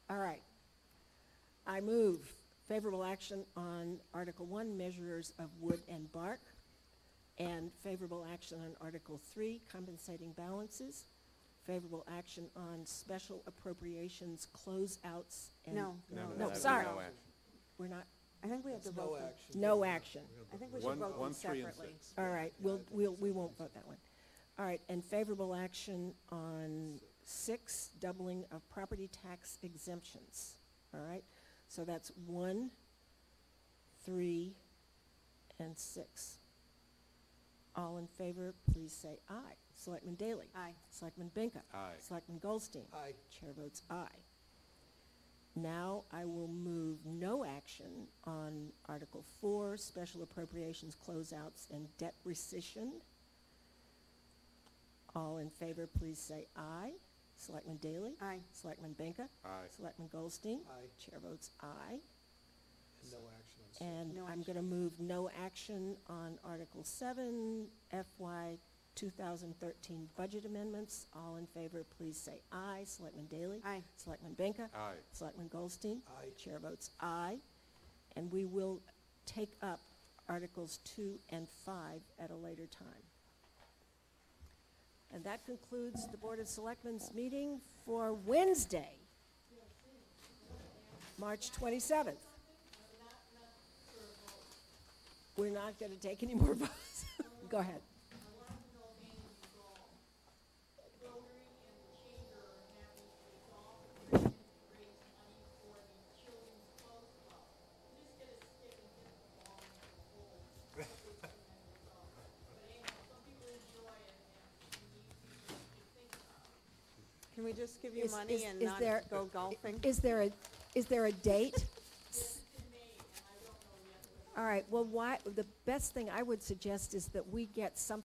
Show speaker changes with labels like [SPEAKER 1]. [SPEAKER 1] All right. I move favorable action on Article 1, measures of wood and bark, and favorable action on Article 3, compensating balances, favorable action on special appropriations closeouts and...
[SPEAKER 2] No,
[SPEAKER 3] No, no,
[SPEAKER 1] No,
[SPEAKER 3] that was
[SPEAKER 1] sorry.
[SPEAKER 3] no action.
[SPEAKER 1] We're not,
[SPEAKER 2] I think we have to vote them.
[SPEAKER 1] no action.
[SPEAKER 2] I think we
[SPEAKER 3] One-
[SPEAKER 2] should vote
[SPEAKER 3] one,
[SPEAKER 2] them
[SPEAKER 3] three, and
[SPEAKER 2] separately.
[SPEAKER 3] six.
[SPEAKER 1] All right, we'll, we'll, we won't vote that one. All right, and favorable action on six, doubling of property tax exemptions. All right, so that's one, three, and six. All in favor, please say aye. Selectman Daley?
[SPEAKER 2] Aye.
[SPEAKER 1] Selectman Benka?
[SPEAKER 3] Aye.
[SPEAKER 1] Selectman Goldstein?
[SPEAKER 4] Aye.
[SPEAKER 1] Chair votes aye. Now I will move no action on Article 4, Special Appropriations Closeouts and Debt Rescission. All in favor, please say aye. Selectman Daley?
[SPEAKER 2] Aye.
[SPEAKER 1] Selectman Benka?
[SPEAKER 3] Aye.
[SPEAKER 1] Selectman Goldstein?
[SPEAKER 4] Aye.
[SPEAKER 1] Chair votes aye.
[SPEAKER 4] No action on six.
[SPEAKER 1] And
[SPEAKER 2] No
[SPEAKER 1] I'm going to move no action on Article 7, FY 2013 budget amendments. All in favor, please say aye. Selectman Daley?
[SPEAKER 2] Aye.
[SPEAKER 1] Selectman Benka?
[SPEAKER 3] Aye.
[SPEAKER 1] Selectman Goldstein?
[SPEAKER 4] Aye.
[SPEAKER 1] Chair votes aye. And we will take up Articles 2 and 5 at a later time. And that concludes the Board of Selectmen's meeting for Wednesday, March 27th. We're not going to take any more votes. Go ahead.
[SPEAKER 2] Can we just give you
[SPEAKER 1] Is- is-
[SPEAKER 2] money and
[SPEAKER 1] is
[SPEAKER 2] not
[SPEAKER 1] there-
[SPEAKER 2] go golfing?
[SPEAKER 1] Is there a, is there a date? All right, well, why, the best thing I would suggest is that we get something